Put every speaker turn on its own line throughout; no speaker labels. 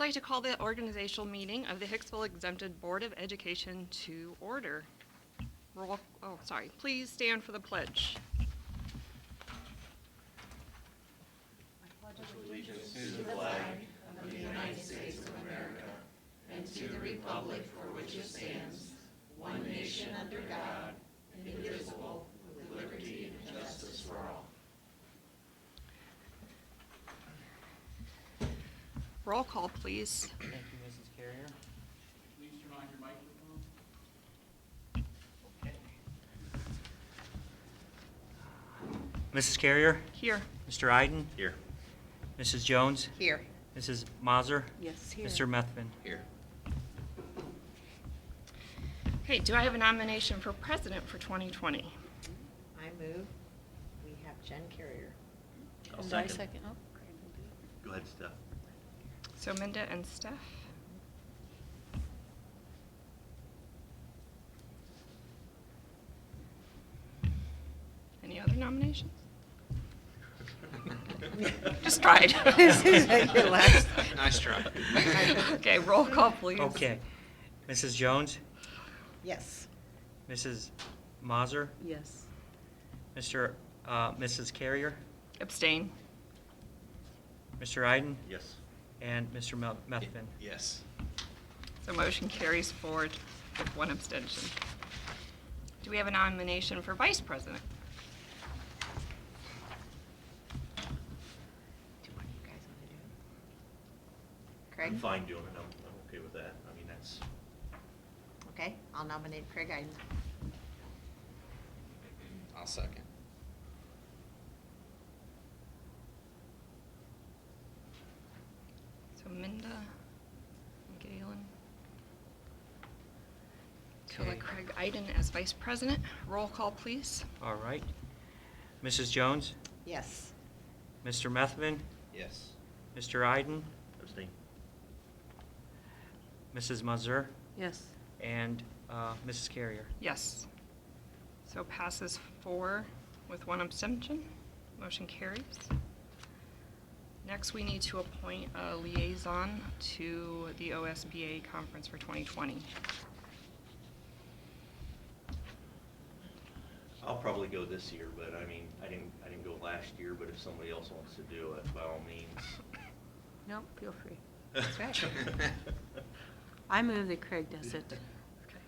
like to call the organizational meeting of the Hicksville Exempted Board of Education to order. Roll, oh, sorry, please stand for the pledge. Roll call, please.
Thank you, Mrs. Carrier.
Please turn on your microphone.
Mrs. Carrier,
Here.
Mr. Iden. Here. Mrs. Jones,
Here.
Mrs. Mazur,
Yes, here.
Mr. Methvin.
Okay, do I have a nomination for president for 2020?
I move, we have Jen Carrier.
And I second. Oh, great.
Go ahead, Steph.
So Minda and Steph? Any other nominations? Just tried.
This is like your last.
Nice try.
Okay, roll call, please.
Okay. Mrs. Jones,
Yes.
Mrs. Mazur,
Yes.
Mr., uh, Mrs. Carrier,
Abstain.
Mr. Iden,
Yes.
and Mr. Mel- Methvin.
Yes.
So motion carries forward with one abstention. Do we have a nomination for vice president?
Do one of you guys want to do it?
I'm
Craig?
fine doing it. I'm, I'm okay with that. I mean, that's,
Okay, I'll nominate Craig Iden.
I'll second.
So Minda, and Galen. To
Okay.
elect Craig Iden as vice president. Roll call, please.
All right. Mrs. Jones,
Yes.
Mr. Methvin,
Yes.
Mr. Iden,
abstain.
Mrs. Mazur,
Yes.
and uh, Mrs. Carrier.
Yes. So passes four with one abstention. Motion carries. Next, we need to appoint a liaison to the OSBA conference for 2020.
I'll probably go this year, but I mean, I didn't, I didn't go last year, but if somebody else wants to do it, by all means.
No, feel free. That's right. I move that Craig does it.
Okay.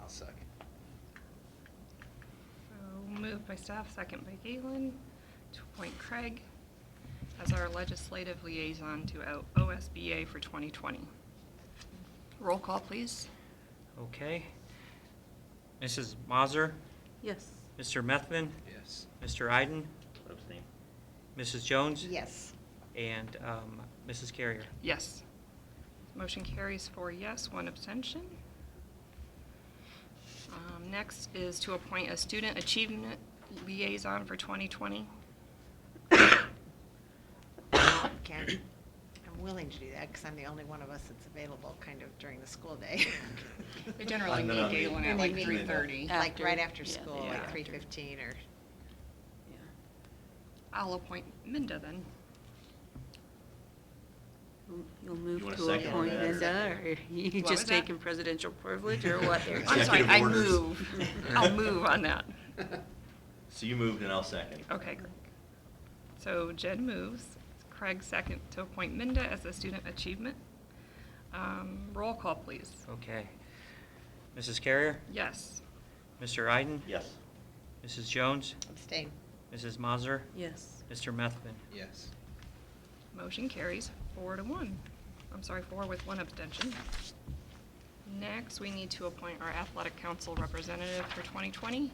I'll second.
So moved by staff, second by Galen, to appoint Craig as our legislative liaison to O- OSBA for 2020. Roll call, please.
Okay. Mrs. Mazur,
Yes.
Mr. Methvin,
Yes.
Mr. Iden,
Abstain.
Mrs. Jones?
Yes.
And um, Mrs. Carrier?
Yes. Motion carries four yes, one abstention. Um, Next is to appoint a student achievement liaison for 2020.
Ken, I'm willing to do that because I'm the only one of us that's available kind of during the school day.
They generally
I'm
meet,
gonna-
Galen, at
And they
like
meet
3:30.
Like right after
After, yeah,
school,
yeah.
like three fifteen or,
Yeah.
I'll appoint Minda then.
You'll- You'll
You
move
want a
to
second on
appoint
that, or-
Linda, or you
What was
just
that?
taking presidential privilege, or what? there?
I'm sorry, I
Executive orders.
move. I'll move on that.
So you moved and I'll second.
Okay, great. So Jen moves, Craig second to appoint Minda as a student achievement. Um, Roll call, please.
Okay. Mrs. Carrier?
Yes.
Mr. Iden?
Yes.
Mrs. Jones?
abstain.
Mrs. Mazur?
Yes.
Mr. Methvin?
Yes.
Motion carries four to one. I'm sorry, four with one abstention. Next, we need to appoint our athletic council representative for 2020.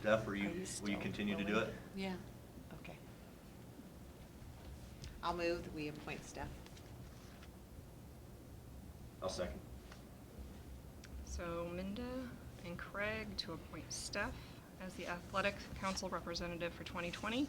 Steph, are
Are
you,
you
will you
still
continue to do
willing?
it?
Yeah.
Okay. I'll move, that we appoint Steph.
I'll second.
So Minda and Craig to appoint Steph as the athletic council representative for 2020.